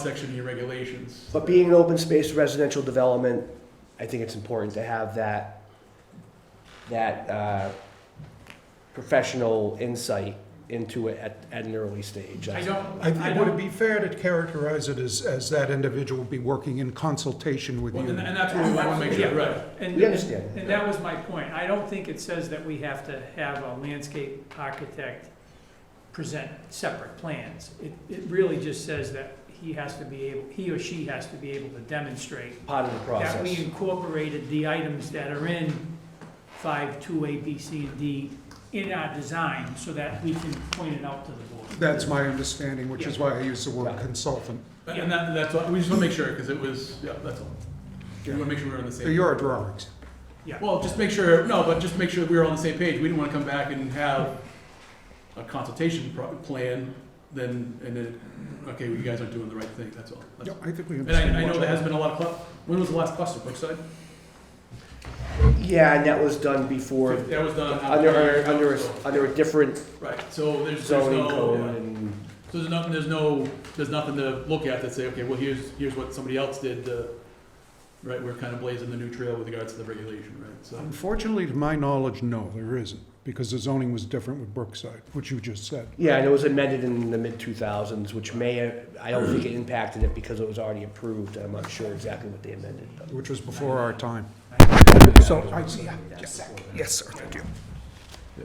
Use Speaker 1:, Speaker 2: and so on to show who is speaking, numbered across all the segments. Speaker 1: Section E regulations.
Speaker 2: But being an open space residential development, I think it's important to have that, that uh, professional insight into it at, at an early stage.
Speaker 1: I don't,
Speaker 3: I
Speaker 1: I
Speaker 3: think, would it
Speaker 1: don't,
Speaker 3: be fair to characterize it as, as that individual would be working in consultation with
Speaker 1: well,
Speaker 3: you?
Speaker 1: and and that's what we want to make sure, right.
Speaker 4: And,
Speaker 2: We understand.
Speaker 4: and that was my point. I don't think it says that we have to have a landscape architect present separate plans. It, it really just says that he has to be able, he or she has to be able to demonstrate
Speaker 2: Part of the
Speaker 4: that we
Speaker 2: process.
Speaker 4: incorporated the items that are in five, two, A, B, C, and D in our design so that we can point it out to the board.
Speaker 3: That's my understanding, which is why I use the word
Speaker 2: Right.
Speaker 3: consultant.
Speaker 1: And that, that's, all- we just want to make sure, because it was, yeah, that's all. We want to make sure we're on the
Speaker 3: They're
Speaker 1: same.
Speaker 3: your drawings.
Speaker 1: Well, just make sure, no, but just make sure we're on the same page. We didn't want to come back and have a consultation pro- plan, then, and then, okay, well, you guys aren't doing the right thing, that's all. That's-
Speaker 3: Yeah, I think we
Speaker 1: And I, I
Speaker 3: understand.
Speaker 1: know
Speaker 3: what
Speaker 1: there has
Speaker 3: you-
Speaker 1: been a lot of, clu- when was the last cluster, Brookside?
Speaker 2: Yeah, and that was done before,
Speaker 1: That was done.
Speaker 2: under, under, under a- under a different
Speaker 1: Right, so there's, there's
Speaker 2: zoning
Speaker 1: no,
Speaker 2: code and,
Speaker 1: So there's nothing, there's no, there's nothing to look at that say, okay, well, here's, here's what somebody else did, uh, right, we're kind of blazing the new trail with regards to the regulation, right, so.
Speaker 3: Unfortunately, to my knowledge, no, there isn't, because the zoning was different with Brookside, which you just said.
Speaker 2: yeah, and it was amended in the mid-2000s, which may, I don't think it impacted it because it was already approved. I'm not sure exactly what they amended. but-
Speaker 3: Which was before our time. So, I, yeah, yes, yes, sir, thank you.
Speaker 1: Yeah.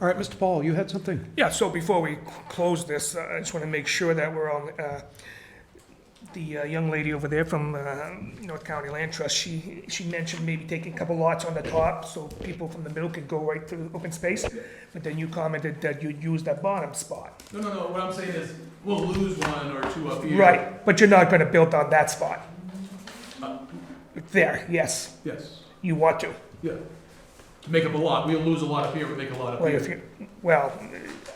Speaker 3: All right, Mr. Paul, you had something?
Speaker 5: Yeah, so before we c- close this, uh, I just want to make sure that we're on, uh, the uh, young lady over there from uh, North County Land Trust, she, she mentioned maybe taking a couple lots on the top so people from the middle could go right through open space, but then you commented that you'd use that bottom spot.
Speaker 1: No, no, no, what I'm saying is, we'll lose one or two up here.
Speaker 5: Right, but you're not going to build on that spot.
Speaker 1: Uh,
Speaker 5: There, yes,
Speaker 1: Yes,
Speaker 5: you want to.
Speaker 1: yeah. To make up a lot, we'll lose a lot up here, we make a lot up
Speaker 5: Well, if
Speaker 1: here.
Speaker 5: you, well,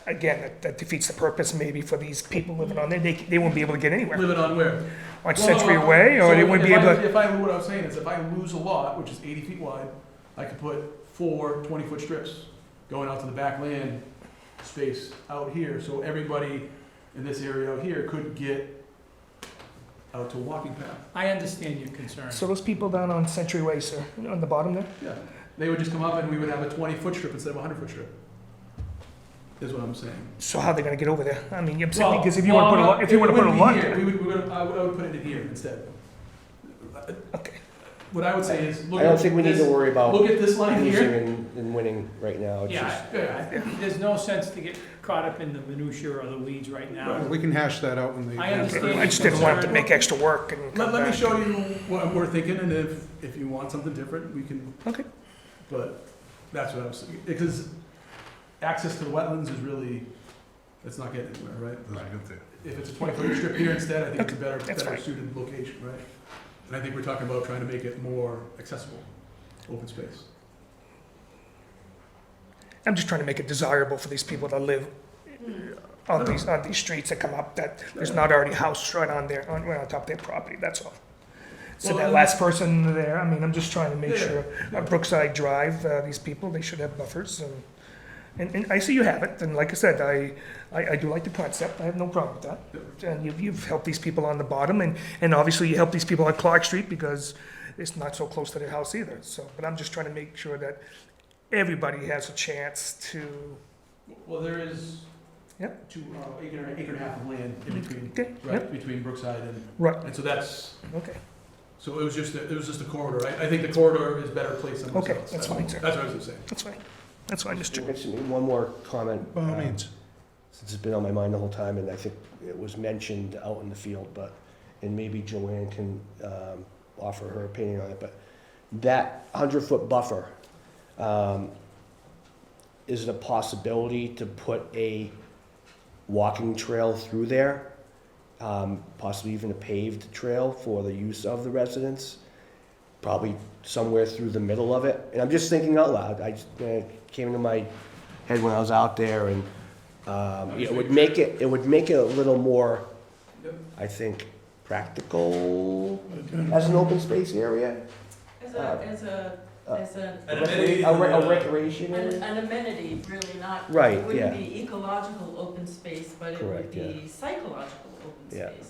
Speaker 5: again, that- that defeats the purpose maybe for these people living on there. They, they won't be able to get anywhere.
Speaker 1: Living on where?
Speaker 5: On
Speaker 1: Well, no,
Speaker 5: Century
Speaker 1: no,
Speaker 5: Way,
Speaker 1: so
Speaker 5: or they wouldn't be
Speaker 1: if
Speaker 5: able
Speaker 1: I-
Speaker 5: to.
Speaker 1: If I, what I'm saying is, if I lose a lot, which is eighty feet wide, I could put four twenty-foot strips going out to the back land space out here, so everybody in this area out here could get out to a walking path,
Speaker 4: I understand your concern.
Speaker 5: So those people down on Century Way, sir, on the bottom there?
Speaker 1: yeah. They would just come up and we would have a twenty-foot strip instead of a hundred-foot strip, is what I'm saying.
Speaker 5: So how are they gonna get over there? I mean, you're
Speaker 1: Well,
Speaker 5: saying, because if you wanna put a lot, if you wanna
Speaker 1: it
Speaker 5: put a
Speaker 1: wouldn't be
Speaker 5: lot
Speaker 1: here. We
Speaker 5: there.
Speaker 1: would, we would, I would, I would put it in here instead.
Speaker 5: Okay,
Speaker 1: What I would say is, look
Speaker 2: I don't
Speaker 1: at
Speaker 2: think we need
Speaker 1: this,
Speaker 2: to worry about.
Speaker 1: look at this line
Speaker 2: losing
Speaker 1: here.
Speaker 2: and, and winning right now. It's
Speaker 4: Yeah,
Speaker 2: just,
Speaker 4: I- I- there's no sense to get caught up in the minutia or the weeds right now.
Speaker 3: We can hash that out when the.
Speaker 4: I understand.
Speaker 5: I just didn't want them to make extra work and come
Speaker 1: Let, let me
Speaker 5: back.
Speaker 1: show you what we're thinking, and if, if you want something different, we can,
Speaker 5: Okay,
Speaker 1: but that's what I was, because access to the wetlands is really, it's not getting anywhere, right? If it's a twenty-foot strip here instead, I think it's a better,
Speaker 5: that's
Speaker 1: better
Speaker 5: fine.
Speaker 1: suited location, right? And I think we're talking about trying to make it more accessible, open space.
Speaker 5: I'm just trying to make it desirable for these people to live uh, on these, on these streets that come up, that there's not already a house right on there, on, right on top of their property, that's all. So
Speaker 1: Well,
Speaker 5: that
Speaker 1: and-
Speaker 5: last person there, I mean, I'm just trying to make
Speaker 1: Yeah,
Speaker 5: sure, uh, Brookside Drive, uh, these people, they should have buffers and, and, and I see you have it, and like I said, I, I, I do like the concept, I have no problem with that. And you've, you've helped these people on the bottom, and, and obviously you help these people on Clark Street because it's not so close to their house either, so, but I'm just trying to make sure that everybody has a chance to,
Speaker 1: Well, there is
Speaker 5: Yep. Mm-hmm.
Speaker 1: two, uh, acre, and- acre and a half of land in between,
Speaker 5: okay, yep,
Speaker 1: right, between Brookside and,
Speaker 5: right,
Speaker 1: and so that's,
Speaker 5: okay,
Speaker 1: so it was just, a- it was just a corridor. I, I think the corridor is better placed somewhere else.
Speaker 5: Okay, that's fine, sir.
Speaker 1: That's what I was gonna say.
Speaker 5: that's fine, that's fine, Mr.
Speaker 2: Just one more comment.
Speaker 3: By all
Speaker 2: uh,
Speaker 3: means.
Speaker 2: Since it's been on my mind the whole time, and I think it was mentioned out in the field, but, and maybe Joanne can um, offer her opinion on it, but that hundred-foot buffer, um, is it a possibility to put a walking trail through there? Um, Possibly even a paved trail for the use of the residents? Probably somewhere through the middle of it? And I'm just thinking out loud. I just, uh, came into my head when I was out there and, um, you know, it would make it, it would make it a little more,
Speaker 1: Yep.
Speaker 2: I think, practical as an open space area.
Speaker 6: As a, as a
Speaker 2: Uh,
Speaker 6: as a,
Speaker 2: A
Speaker 7: An amenity
Speaker 2: recre-
Speaker 7: in
Speaker 2: A
Speaker 1: uh,
Speaker 7: the-
Speaker 2: a recreation
Speaker 6: an
Speaker 2: area?
Speaker 6: an amenity, really not.
Speaker 2: Right,
Speaker 6: It
Speaker 2: yeah.
Speaker 6: wouldn't be ecological open space, but it would
Speaker 2: Correct, yeah.
Speaker 6: be psychological open
Speaker 2: Yeah.
Speaker 6: space.